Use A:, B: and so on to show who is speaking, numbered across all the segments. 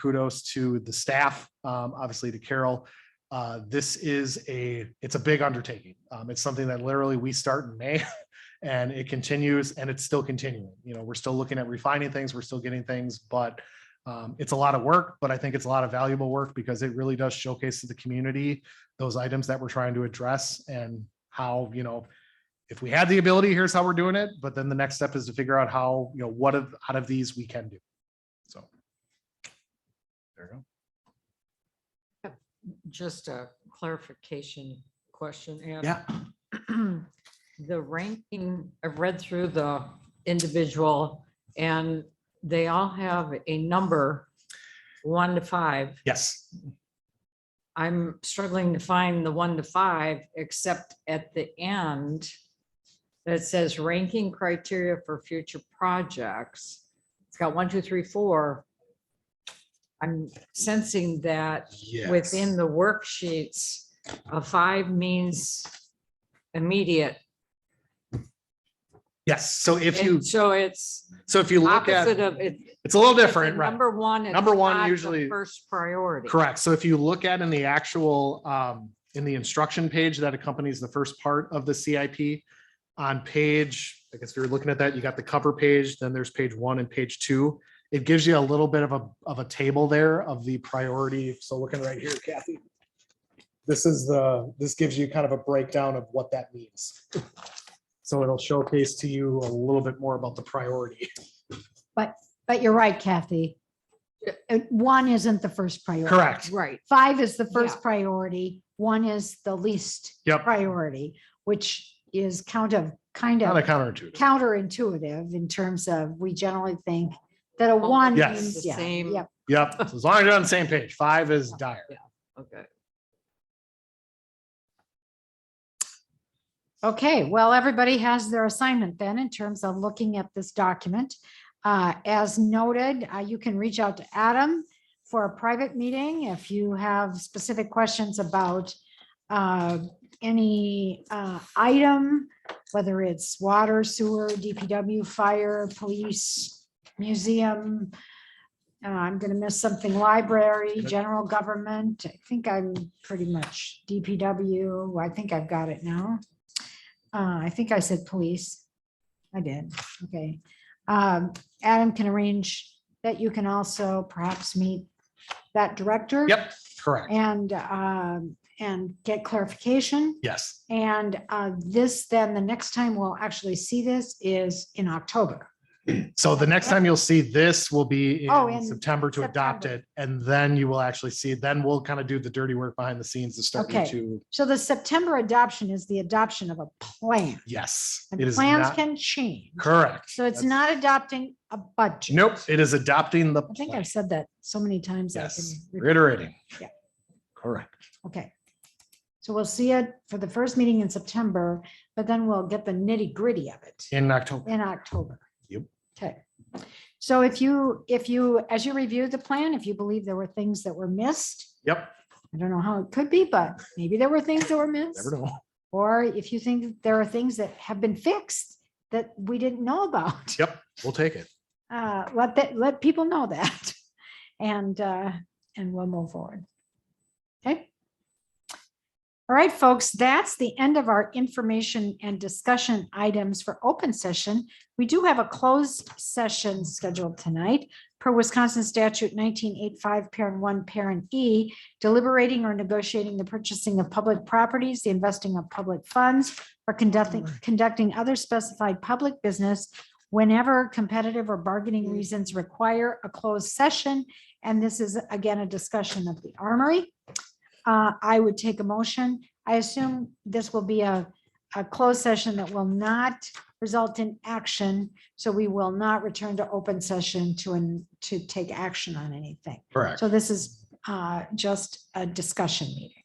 A: kudos to the staff, um, obviously to Carol. Uh, this is a, it's a big undertaking. Um, it's something that literally we start in May and it continues and it's still continuing. You know, we're still looking at refining things, we're still getting things, but um, it's a lot of work, but I think it's a lot of valuable work because it really does showcase to the community those items that we're trying to address and how, you know, if we had the ability, here's how we're doing it, but then the next step is to figure out how, you know, what of, out of these we can do. So. There you go.
B: Just a clarification question. Ann.
A: Yeah.
B: The ranking, I've read through the individual and they all have a number, one to five.
A: Yes.
B: I'm struggling to find the one to five, except at the end that says ranking criteria for future projects. It's got one, two, three, four. I'm sensing that
A: Yes.
B: within the worksheets, a five means immediate.
A: Yes. So if you,
B: And so it's
A: so if you look
B: opposite
A: at,
B: of it.
A: it's a little
B: if it's
A: different, right?
B: Number one. it's
A: Number one
B: not the
A: usually-
B: First priority.
A: Correct. So if you look at in the actual, um, in the instruction page that accompanies the first part of the CIP on page, I guess if you're looking at that, you got the cover page, then there's page one and page two. It gives you a little bit of a, of a table there of the priority. So looking right here, Kathy. This is the, this gives you kind of a breakdown of what that means. So it'll showcase to you a little bit more about the priority.
C: But you're right, Kathy. Uh, One isn't the first priority.
A: Correct.
B: Right.
C: Five is the
B: Yeah.
C: first priority. One is the least
A: Yep.
C: priority, which is kind of, kind
A: Kind of
C: of
A: counterintuitive.
C: counterintuitive in terms of, we generally think that a
B: Almost
C: one
A: Yes.
C: means,
B: the
C: yeah,
B: same.
C: yep.
A: Yep. So As long as you're on the same page, five is dire.
B: Okay.
C: Okay, well, everybody has their assignment then in terms of looking at this document. Uh, As noted, uh, you can reach out to Adam for a private meeting if you have specific questions about uh, any uh, item, whether it's water, sewer, DPW, fire, police, museum. uh, I'm going to miss something, library, general government. I think I'm pretty much DPW. I think I've got it now. Uh, I think I said police. I did, okay. Um, Adam can arrange that you can also perhaps meet that director.
A: Yep, correct.
C: And, um, and get clarification.
A: Yes.
C: And, uh, this, then the next time we'll actually see this is in October.
A: So the next time you'll see this will be
C: Oh,
A: in
C: in
A: September to adopt it.
C: September.
A: And then you will actually see, then we'll kind of do the dirty work behind the scenes to start you
C: Okay.
A: to,
C: So the September adoption is the adoption of a plan.
A: yes.
C: And
A: It is
C: plans
A: not,
C: can change.
A: correct.
C: So it's
A: That's-
C: not adopting a budget.
A: Nope, it is adopting the,
C: I think
A: plan.
C: I've said that so many times. I
A: yes,
C: can repeat.
A: reiterating.
C: Yeah.
A: Correct.
C: Okay. So we'll see it for the first meeting in September, but then we'll get the nitty gritty of it
A: In October.
C: in October.
A: Yep.
C: Okay. So if you, if you, as you review the plan, if you believe there were things that were missed,
A: Yep,
C: I don't know how it could be, but maybe there were things that were missed.
A: never know.
C: Or if you think that there are things that have been fixed that we didn't know about.
A: Yep, we'll take it.
C: uh, let that, let people know that. And, uh, and we'll move forward. Okay? All right, folks, that's the end of our information and discussion items for open session. We do have a closed session scheduled tonight per Wisconsin statute nineteen eight five, parent one, parent E, deliberating or negotiating the purchasing of public properties, the investing of public funds, or conducting, conducting other specified public business whenever competitive or bargaining reasons require a closed session. And this is again, a discussion of the armory. Uh, I would take a motion. I assume this will be a, a closed session that will not result in action. So we will not return to open session to, an- to take action on anything.
A: Correct.
C: So this is uh, just a discussion meeting.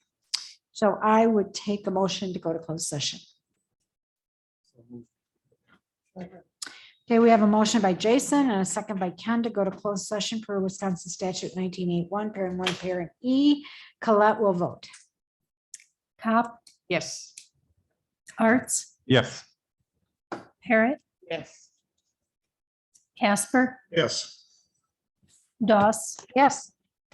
C: So I would take a motion to go to closed session. Okay, we have a motion by Jason and a second by Ken to go to closed session per Wisconsin statute nineteen eight one, parent one, parent E. Colette will vote. Cop,
B: Yes.
D: Arts,
E: Yes.
D: Parrot,
B: Yes.
D: Casper,
E: Yes.
D: Doss,
C: yes.